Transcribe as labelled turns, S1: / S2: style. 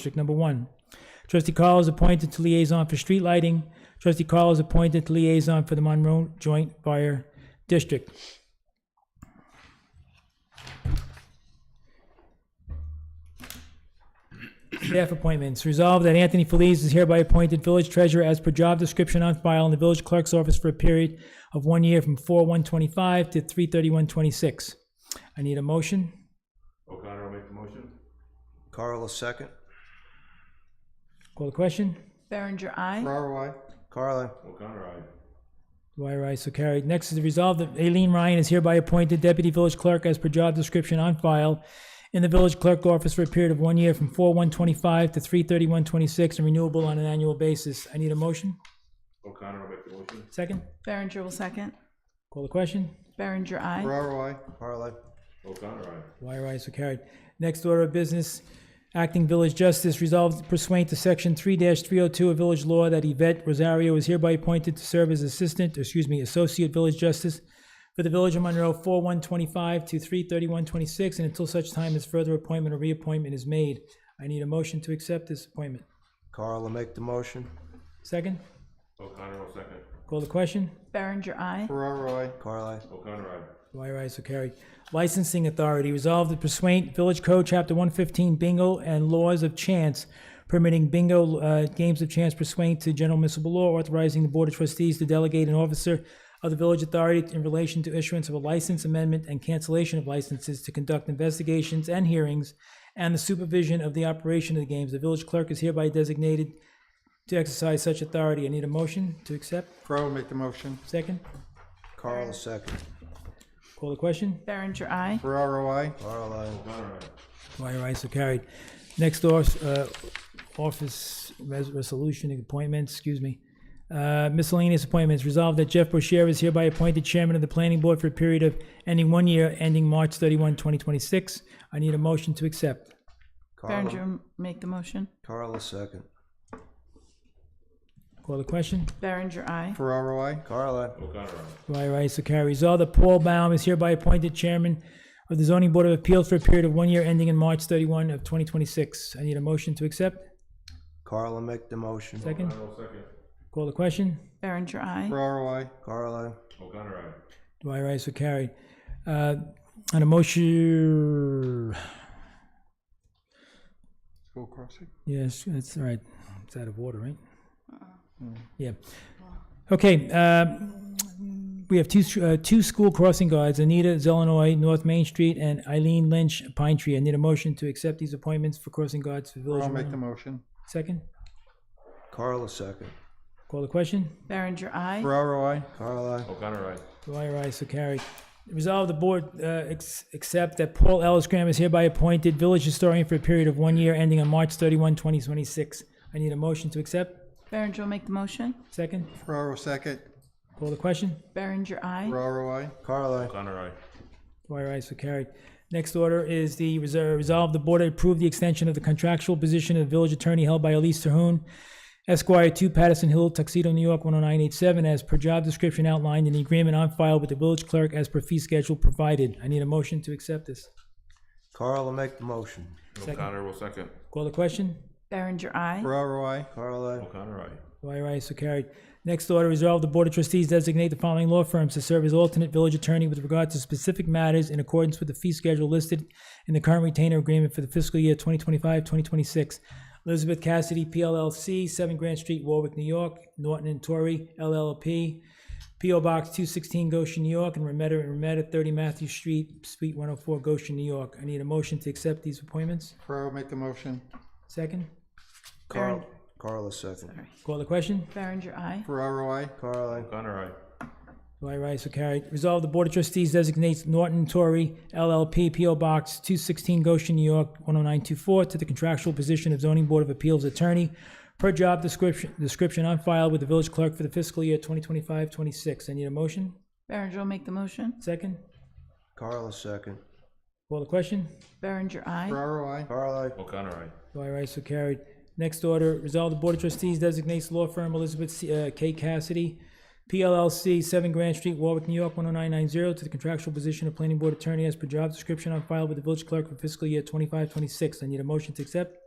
S1: District Number One. Trustee Carl is appointed to liaison for street lighting. Trustee Carl is appointed to liaison for the Monroe Joint Fire District. Staff appointments. Resolved that Anthony Feliz is hereby appointed village treasurer as per job description on file in the village clerk's office for a period of one year from 4/125 to 3/3126. I need a motion.
S2: O'Connor will make the motion.
S3: Carl, a second.
S1: Call the question.
S4: Berenger, aye.
S3: Ferraro, Carla,
S2: O'Connor, aye.
S1: Dwyer, aye, so carried. Next is the resolve that Aileen Ryan is hereby appointed deputy village clerk as per job description on file in the village clerk office for a period of one year from 4/125 to 3/3126 and renewable on an annual basis. I need a motion.
S2: O'Connor will make the motion.
S1: Second.
S4: Berenger will second.
S1: Call the question.
S4: Berenger, aye.
S3: Ferraro, Carla,
S2: O'Connor, aye.
S1: Dwyer, ayes are carried. Next order of business, acting village justice resolved pursuant to section three three oh two of village law that Yvette Rosario is hereby appointed to serve as assistant, excuse me, associate village justice for the village of Monroe, four one twenty-five to three thirty-one twenty-six, and until such time as further appointment or reappointment is made. I need a motion to accept this appointment.
S3: Carla, make the motion.
S1: Second,
S2: O'Connor will second.
S1: call the question.
S4: Berenger, aye.
S3: Ferraro, Carla,
S2: O'Connor, aye.
S1: Dwyer, ayes are carried. Licensing Authority, resolved that pursuant Village Code, Chapter 115, bingo and laws of chance, permitting bingo, uh, games of chance pursuant to general municipal law, authorizing the Board of Trustees to delegate an officer of the village authority in relation to issuance of a license amendment and cancellation of licenses to conduct investigations and hearings and the supervision of the operation of the games. The village clerk is hereby designated to exercise such authority. I need a motion to accept.
S5: Ferraro, make the motion.
S1: Second,
S3: Carla, second.
S1: call the question.
S4: Berenger, aye.
S5: Ferraro, I.
S3: Carla,
S2: O'Connor, aye.
S1: Dwyer, ayes are carried. Next off, uh, office res- resolution appointments, excuse me. Uh, miscellaneous appointments, resolved that Jeff Boshier is hereby appointed chairman of the planning board for a period of ending one year, ending March 31, 2026. I need a motion to accept.
S3: Carla,
S4: Berenger, make the motion.
S3: Carla, second.
S1: Call the question.
S4: Berenger, aye.
S5: Ferraro, I.
S3: Carla,
S2: O'Connor, aye.
S1: Dwyer, ayes are carried. Resolved that Paul Baum is hereby appointed chairman of the zoning board of appeals for a period of one year, ending in March 31 of 2026. I need a motion to accept.
S3: Carla, make the motion.
S1: Second,
S2: O'Connor will second.
S1: call the question.
S4: Berenger, aye.
S5: Ferraro, I.
S3: Carla,
S2: O'Connor, aye.
S1: Dwyer, ayes are carried. Uh, On a motion,
S5: School crossing. Ah.
S1: yes, that's all right. It's out of order, right? Yeah. Okay, um, we have two, uh, two school crossing guards, Anita Zelenoy, North Main Street, and Eileen Lynch, Pine Tree. I need a motion to accept these appointments for crossing guards for Village
S5: Ferraro,
S1: of
S5: make the
S1: Monroe.
S5: motion.
S1: Second,
S3: Carla, second.
S1: call the question.
S4: Berenger, aye.
S5: Ferraro, I.
S3: Carla,
S2: O'Connor, aye.
S1: Dwyer, ayes so carried. Resolve the board uh, ex- accept that Paul Ellis Graham is hereby appointed village historian for a period of one year ending on March 31, 2026. I need a motion to accept.
S4: Berenger will make the motion.
S1: Second,
S5: Ferraro, second.
S1: call the question.
S4: Berenger, aye.
S5: Ferraro, I.
S3: Carla,
S2: O'Connor, aye.
S1: Dwyer, ayes so carried. Next order is the reserve, resolve the board approve the extension of the contractual position of village attorney held by Elise Terhune Esquire, 2 Patterson Hill, Tuxedo, New York, 10987, as per job description outlined in the agreement on file with the village clerk as per fee schedule provided. I need a motion to accept this.
S3: Carla, make the motion.
S2: O'Connor will second.
S1: Call the question.
S4: Berenger, aye.
S5: Ferraro, I.
S3: Carla,
S2: O'Connor, aye.
S1: Dwyer, ayes so carried. Next order, resolve the Board of Trustees designate the following law firms to serve as alternate village attorney with regard to specific matters in accordance with the fee schedule listed in the current retainer agreement for the fiscal year 2025-2026. Elizabeth Cassidy, PLLC, 7 Grand Street, Warwick, New York. Norton and Torrey, LLP, P.O. Box 216, Goshen, New York, and Remetta and Remetta, 30 Matthew Street, Suite 104, Goshen, New York. I need a motion to accept these appointments.
S5: Ferraro, make the motion.
S1: Second,
S3: Carla, Carla, second.
S1: call the question.
S4: Berenger, aye.
S5: Ferraro, I.
S3: Carla,
S2: O'Connor, aye.
S1: Dwyer, ayes are carried. Resolved, the Board of Trustees designates Norton Torrey LLP P.O. Box 216 Goshen, New York 10924 to the contractual position of Zoning Board of Appeals Attorney per job description, description on file with the village clerk for the fiscal year 2025-26. I need a motion.
S4: Berenger will make the motion.
S1: Second.
S3: Carla, second.
S1: Call the question.
S4: Berenger, aye.
S5: Ferraro, I.
S3: Carla,
S2: O'Connor, aye.
S1: Dwyer, ayes are carried. Next order, resolve the Board of Trustees designates law firm Elizabeth C- uh, K. Cassidy, PLLC, 7 Grand Street, Warwick, New York, 10990, to the contractual position of Planning Board Attorney as per job description on file with the village clerk for fiscal year 25-26. I need a motion to accept.